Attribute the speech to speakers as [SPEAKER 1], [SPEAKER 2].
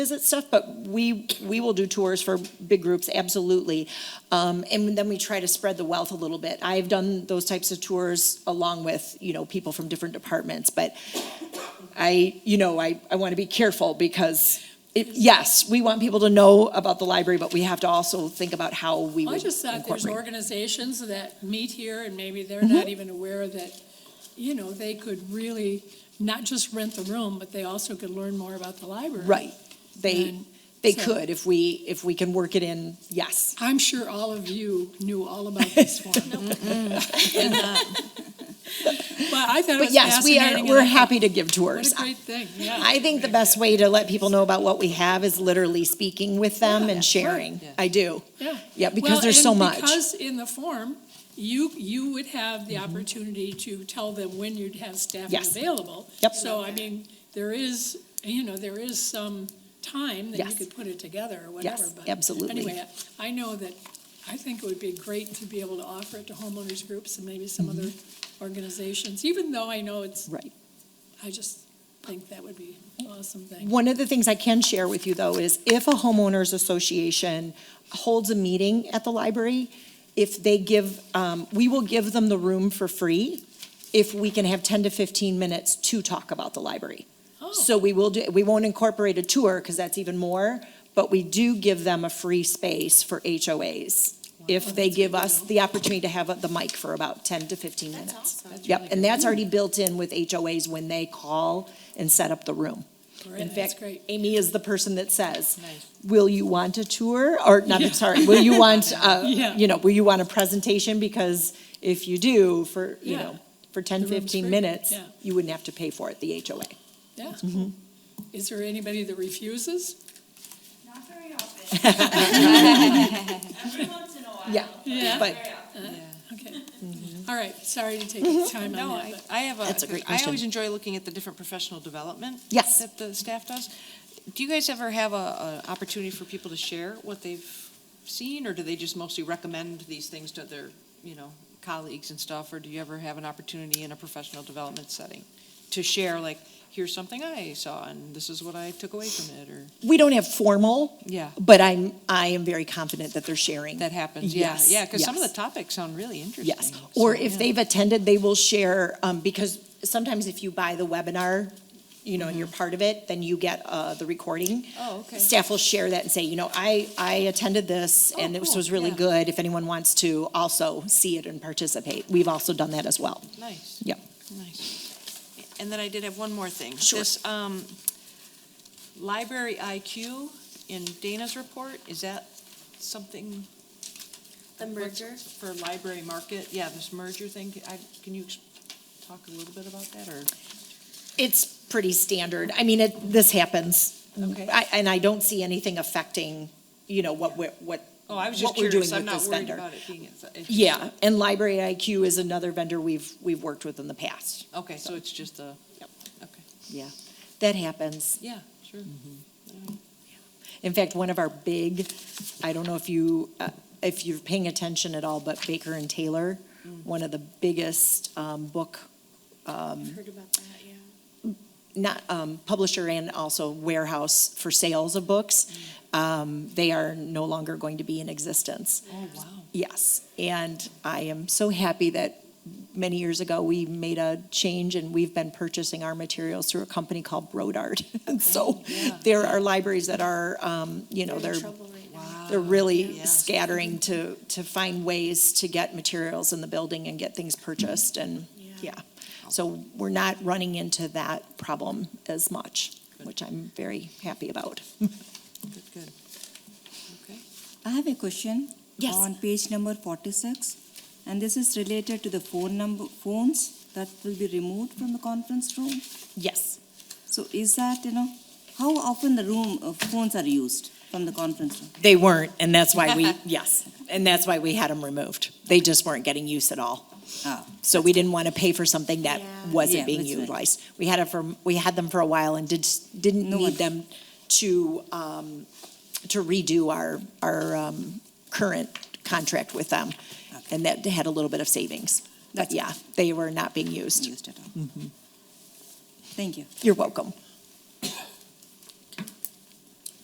[SPEAKER 1] visit stuff, but we, we will do tours for big groups, absolutely. Um, and then we try to spread the wealth a little bit. I've done those types of tours along with, you know, people from different departments, but I, you know, I, I want to be careful because it, yes, we want people to know about the library, but we have to also think about how we
[SPEAKER 2] I
[SPEAKER 1] would
[SPEAKER 2] just thought there's
[SPEAKER 1] incorporate. Mm-hmm.
[SPEAKER 2] organizations that meet here and maybe they're not even aware that, you know, they could really not just rent the room, but they also could learn more about the library.
[SPEAKER 1] Right. They,
[SPEAKER 2] And
[SPEAKER 1] they
[SPEAKER 2] so-
[SPEAKER 1] could if we, if we can work it in, yes.
[SPEAKER 2] I'm sure all of you knew all about this one. But I thought it was fascinating.
[SPEAKER 1] But yes, we are,
[SPEAKER 2] and
[SPEAKER 1] we're
[SPEAKER 2] I thought,
[SPEAKER 1] happy to give
[SPEAKER 2] What
[SPEAKER 1] tours.
[SPEAKER 2] a great thing, yeah.
[SPEAKER 1] I think the best way to let people know about what we have is literally speaking with them
[SPEAKER 2] Yeah,
[SPEAKER 1] and sharing.
[SPEAKER 3] right.
[SPEAKER 1] I do.
[SPEAKER 2] Yeah.
[SPEAKER 1] Yeah, because
[SPEAKER 2] Well,
[SPEAKER 1] there's so
[SPEAKER 2] and
[SPEAKER 1] much.
[SPEAKER 2] Because in the form, you, you would have the opportunity to tell them when you'd have staffing
[SPEAKER 1] Mm-hmm. Yes.
[SPEAKER 2] available.
[SPEAKER 1] Yep.
[SPEAKER 2] So, I mean, there is, you know, there is some time that you
[SPEAKER 1] Yes.
[SPEAKER 2] could put it together or whatever.
[SPEAKER 1] Yes,
[SPEAKER 2] but
[SPEAKER 1] absolutely.
[SPEAKER 2] Anyway, I know that, I think it would be great to be able to offer it to homeowners groups and maybe some other
[SPEAKER 1] Mm-hmm.
[SPEAKER 2] organizations, even though I know it's,
[SPEAKER 1] Right.
[SPEAKER 2] I just think that would be an awesome thing.
[SPEAKER 1] One of the things I can share with you, though, is if a homeowners association holds a meeting at the library, if they give, um, we will give them the room for free if we can have 10 to 15 minutes to talk about the library.
[SPEAKER 2] Oh.
[SPEAKER 1] So we will do, we won't incorporate a tour because that's even more, but we do give them a free space for HOAs.
[SPEAKER 2] Oh,
[SPEAKER 1] If they give us the opportunity to have the mic for about ten to fifteen minutes. Yep, and that's already built in with HOAs when they call and set up the room.
[SPEAKER 2] Great,
[SPEAKER 1] In
[SPEAKER 2] That's
[SPEAKER 1] fact,
[SPEAKER 2] great.
[SPEAKER 1] Amy is the person that says,
[SPEAKER 3] Nice.
[SPEAKER 1] will you want a tour? Or, not, sorry, will you want, uh,
[SPEAKER 2] Yeah.
[SPEAKER 1] you know, will you want a presentation? Because if you do, for, you
[SPEAKER 2] Yeah.
[SPEAKER 1] know, for 10,
[SPEAKER 2] The room's
[SPEAKER 1] 15
[SPEAKER 2] free,
[SPEAKER 1] minutes,
[SPEAKER 2] yeah.
[SPEAKER 1] you wouldn't have to pay for it, the HOA.
[SPEAKER 2] Yeah. Is there anybody that refuses?
[SPEAKER 4] Not very often. Every once in a while.
[SPEAKER 1] Yeah.
[SPEAKER 4] but not
[SPEAKER 2] Yeah.
[SPEAKER 1] But-
[SPEAKER 4] very often.
[SPEAKER 2] Okay. All right, sorry to take the time
[SPEAKER 3] No,
[SPEAKER 2] on
[SPEAKER 3] I,
[SPEAKER 2] that,
[SPEAKER 3] I have a.
[SPEAKER 1] That's a great
[SPEAKER 3] I always
[SPEAKER 1] question.
[SPEAKER 3] enjoy looking at the different professional development.
[SPEAKER 1] Yes.
[SPEAKER 3] That the staff does. Do you guys ever have a, a opportunity for people to share what they've seen, or do they just mostly recommend these things to their, you know, colleagues and stuff, or do you ever have an opportunity in a professional development setting to share, like, here's something I saw, and this is what I took away from it, or,
[SPEAKER 1] We don't have formal,
[SPEAKER 3] yeah,
[SPEAKER 1] but I'm, I am very confident that they're sharing.
[SPEAKER 3] that happens, yeah,
[SPEAKER 1] Yes,
[SPEAKER 3] yeah, because some of the
[SPEAKER 1] yes.
[SPEAKER 3] topics sound really interesting.
[SPEAKER 1] Yes, or
[SPEAKER 3] so,
[SPEAKER 1] if
[SPEAKER 3] yeah.
[SPEAKER 1] they've attended, they will share, um, because sometimes if you buy the webinar, you know, and you're part of it, then you get, uh, the recording.
[SPEAKER 3] Oh, okay.
[SPEAKER 1] Staff will share that and say, you know, I, I attended this and
[SPEAKER 3] Oh,
[SPEAKER 1] this
[SPEAKER 3] cool,
[SPEAKER 1] was really
[SPEAKER 3] yeah.
[SPEAKER 1] good. If anyone wants to also see it and participate, we've also done that as well.
[SPEAKER 3] Nice.
[SPEAKER 1] Yep.
[SPEAKER 3] Nice. And then I did have one more thing.
[SPEAKER 1] Sure.
[SPEAKER 3] This, um, library IQ in Dana's report, is that something?
[SPEAKER 5] The
[SPEAKER 3] what's-
[SPEAKER 5] merger?
[SPEAKER 3] For library market, yeah, this merger thing, I, can you ex- talk a little bit about that, or?
[SPEAKER 1] It's pretty standard. I mean, it, this happens.
[SPEAKER 3] Okay.
[SPEAKER 1] I, and I don't see anything affecting, you know, what, we're- what,
[SPEAKER 3] Oh, I was
[SPEAKER 1] what
[SPEAKER 3] just
[SPEAKER 1] we're doing
[SPEAKER 3] curious, I'm
[SPEAKER 1] with
[SPEAKER 3] not
[SPEAKER 1] this
[SPEAKER 3] worried
[SPEAKER 1] vendor.
[SPEAKER 3] about it being, it's- it's-
[SPEAKER 1] Yeah, and Library IQ is another vendor we've, we've worked with in the past.
[SPEAKER 3] Okay, so it's just a,
[SPEAKER 1] Yep.
[SPEAKER 3] okay, Mm-hmm.
[SPEAKER 1] Yeah, that happens.
[SPEAKER 3] yeah, sure.
[SPEAKER 1] In fact, one of our big, I don't know if you, uh, if you're paying attention at all, but Baker and Taylor, one of the biggest um, book,
[SPEAKER 5] I've heard about that, yeah.
[SPEAKER 1] not um, publisher and also warehouse for sales of books, um, they are no longer going to be in existence.
[SPEAKER 3] Oh, wow.
[SPEAKER 1] Yes, and I am so happy that many years ago, we made a change and we've been purchasing our materials through a company called Brodart. And so
[SPEAKER 3] yeah.
[SPEAKER 1] there are libraries that are, um, you know,
[SPEAKER 5] They're in
[SPEAKER 1] they're,
[SPEAKER 5] trouble right now.
[SPEAKER 1] they're really
[SPEAKER 3] yeah.
[SPEAKER 1] scattering to, to find ways to get materials in the building and get things purchased and,
[SPEAKER 5] Yeah.
[SPEAKER 1] yeah. So we're not running into that problem as much, which I'm very happy about.
[SPEAKER 3] Good, good. Okay.
[SPEAKER 6] I have a question.
[SPEAKER 1] Yes.
[SPEAKER 6] On page number forty-six, and this is related to the phone number, phones that will be removed from the conference room.
[SPEAKER 1] Yes.
[SPEAKER 6] So is that, you know, how often the room, uh, phones are used from the conference room?
[SPEAKER 1] They weren't, and that's why we, yes, and that's why we had them removed. They just weren't getting use at all.
[SPEAKER 6] Ah,
[SPEAKER 1] So we didn't want to pay for something that
[SPEAKER 5] Yeah.
[SPEAKER 1] wasn't
[SPEAKER 6] Yeah,
[SPEAKER 1] being
[SPEAKER 6] that's right.
[SPEAKER 1] utilized. We had it for, we had them for a while and did, didn't
[SPEAKER 6] No
[SPEAKER 1] need
[SPEAKER 6] one-
[SPEAKER 1] them to, um, to redo our, our, um, current contract with them.
[SPEAKER 6] Okay.
[SPEAKER 1] And that had a little bit of savings. But
[SPEAKER 6] That's-
[SPEAKER 1] yeah, they were not being used.
[SPEAKER 6] used at all. Thank you.
[SPEAKER 1] You're welcome.